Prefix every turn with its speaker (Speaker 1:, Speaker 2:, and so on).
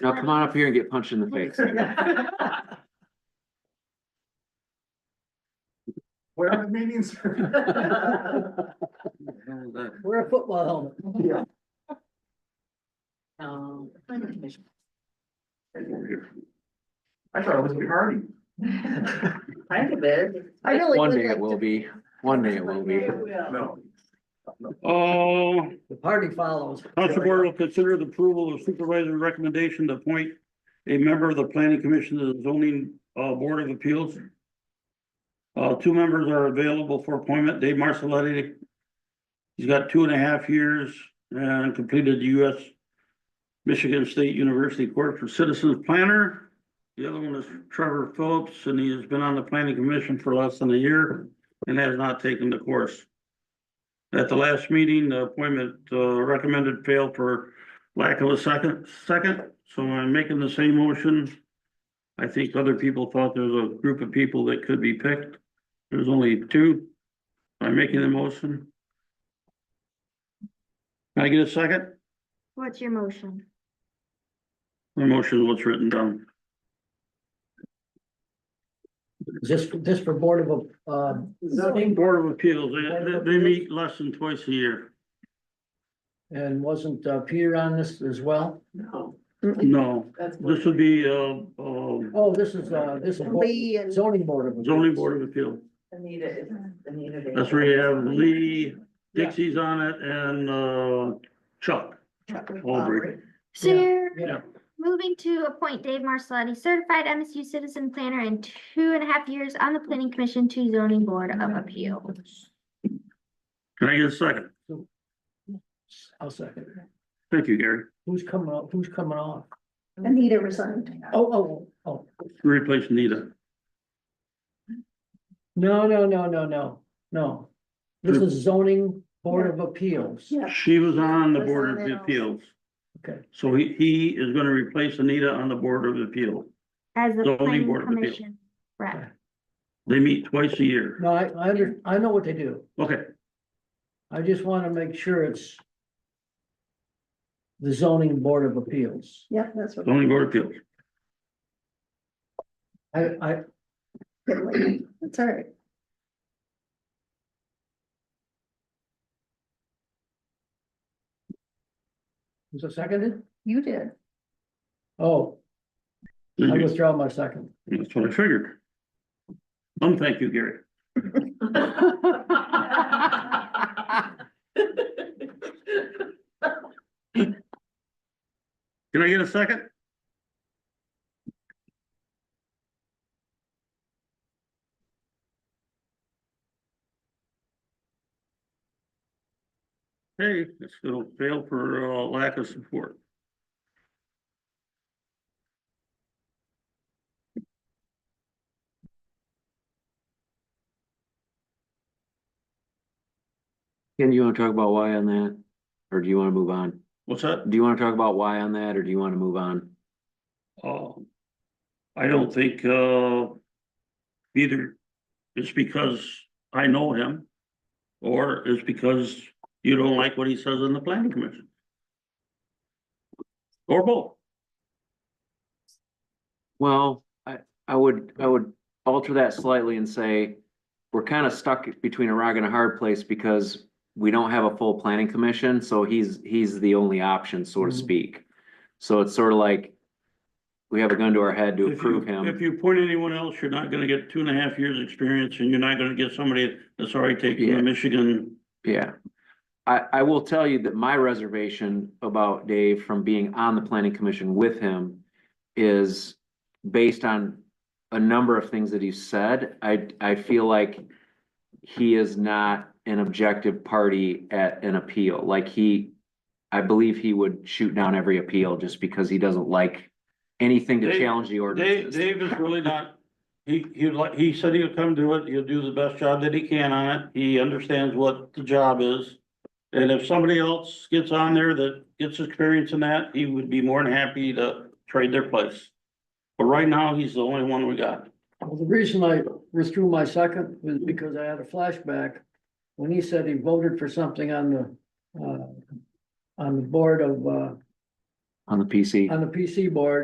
Speaker 1: Now come on up here and get punched in the face.
Speaker 2: Where are the meetings?
Speaker 3: Wear a football helmet.
Speaker 2: Yeah.
Speaker 3: Um,
Speaker 2: I thought it was gonna be Hardy.
Speaker 3: kind of is. I really
Speaker 1: One
Speaker 3: would
Speaker 1: day
Speaker 3: like
Speaker 1: it will
Speaker 3: to-
Speaker 1: be, one day it will be.
Speaker 2: No.
Speaker 4: Oh,
Speaker 3: The party follows.
Speaker 4: council board will consider the approval of supervisor's recommendation to appoint a member of the planning commission to the zoning uh board of appeals. Uh, two members are available for appointment, Dave Marcelletti. He's got two and a half years and completed the US Michigan State University Court for Citizens Planner. The other one is Trevor Phillips, and he has been on the planning commission for less than a year and has not taken the course. At the last meeting, the appointment uh, recommended failed for lack of a second, second, so I'm making the same motion. I think other people thought there was a group of people that could be picked. There's only two. I'm making the motion. Can I get a second?
Speaker 5: What's your motion?
Speaker 4: The motion is what's written down.
Speaker 3: Just, just for board of, um, zoning,
Speaker 4: Board of Appeals, they, they- they meet less than twice a year.
Speaker 3: and wasn't uh, Peter on this as well?
Speaker 2: No.
Speaker 4: No,
Speaker 2: That's.
Speaker 4: this would be, uh, um,
Speaker 3: Oh, this is, uh, this is bo-
Speaker 6: Lee and-
Speaker 3: zoning board of.
Speaker 4: zoning board of appeal.
Speaker 2: Anita, Anita.
Speaker 4: That's where you have Lee, Dixie's on it, and, uh, Chuck. Aubrey.
Speaker 5: So
Speaker 3: Yeah.
Speaker 5: you're
Speaker 3: Yeah,
Speaker 5: moving to appoint Dave Marcelletti, certified MSU citizen planner and two and a half years on the planning commission to zoning board of appeal.
Speaker 4: Can I get a second?
Speaker 3: I'll second.
Speaker 4: Thank you, Gary.
Speaker 3: Who's coming up? Who's coming on?
Speaker 6: Anita resigned.
Speaker 3: Oh, oh, oh,
Speaker 4: Replace Nita.
Speaker 3: no, no, no, no, no, no. This is zoning board of appeals.
Speaker 6: Yeah.
Speaker 4: She was on the
Speaker 6: Was
Speaker 4: Board
Speaker 6: on
Speaker 4: of
Speaker 6: it also.
Speaker 4: Appeals.
Speaker 3: Okay.
Speaker 4: So he, he is gonna replace Anita on the Board of Appeal.
Speaker 5: As the
Speaker 4: Zoning
Speaker 5: planning
Speaker 4: Board of Appeal.
Speaker 5: commission rep.
Speaker 4: They meet twice a year.
Speaker 3: No, I, I under, I know what they do.
Speaker 4: Okay,
Speaker 3: I just want to make sure it's the zoning board of appeals.
Speaker 6: Yeah, that's what.
Speaker 4: zoning Board of Appeals.
Speaker 3: I, I,
Speaker 6: That's all right.
Speaker 3: was it seconded?
Speaker 6: You did.
Speaker 3: Oh, I
Speaker 4: Mhm.
Speaker 3: withdraw my second.
Speaker 4: That's what I figured. Um, thank you, Gary. Can I get a second? Hey, it's gonna fail for uh lack of support.
Speaker 1: Ken, do you wanna talk about why on that? Or do you wanna move on?
Speaker 4: What's that?
Speaker 1: Do you wanna talk about why on that, or do you wanna move on?
Speaker 4: Um, I don't think, uh, either it's because I know him or it's because you don't like what he says in the planning commission. Or both.
Speaker 1: Well, I, I would, I would alter that slightly and say, we're kinda stuck between a rock and a hard place because we don't have a full planning commission, so he's, he's the only option, so to
Speaker 4: Mm-hmm.
Speaker 3: Mhm.
Speaker 1: speak. So it's sort of like, we have a gun to our head to
Speaker 4: If you-
Speaker 1: approve him.
Speaker 4: If you appoint anyone else, you're not gonna get two and a half years' experience and you're not gonna get somebody that's already taken
Speaker 1: Yeah.
Speaker 4: the Michigan.
Speaker 1: Yeah. I, I will tell you that my reservation about Dave from being on the planning commission with him is based on a number of things that he said. I, I feel like he is not an objective party at an appeal. Like he, I believe he would shoot down every appeal just because he doesn't like anything to
Speaker 4: Dave-
Speaker 1: challenge the
Speaker 4: Dave,
Speaker 1: ordinances.
Speaker 4: Dave is really not, he, he like, he said he'll come do it, he'll do the best job that he can on it, he understands what the job is. And if somebody else gets on there that gets experience in that, he would be more than happy to trade their place. But right now, he's the only one we got.
Speaker 3: Well, the reason I withdrew my second was because I had a flashback when he said he voted for something on the, uh, on the board of, uh,
Speaker 1: on the PC.
Speaker 3: on the PC board.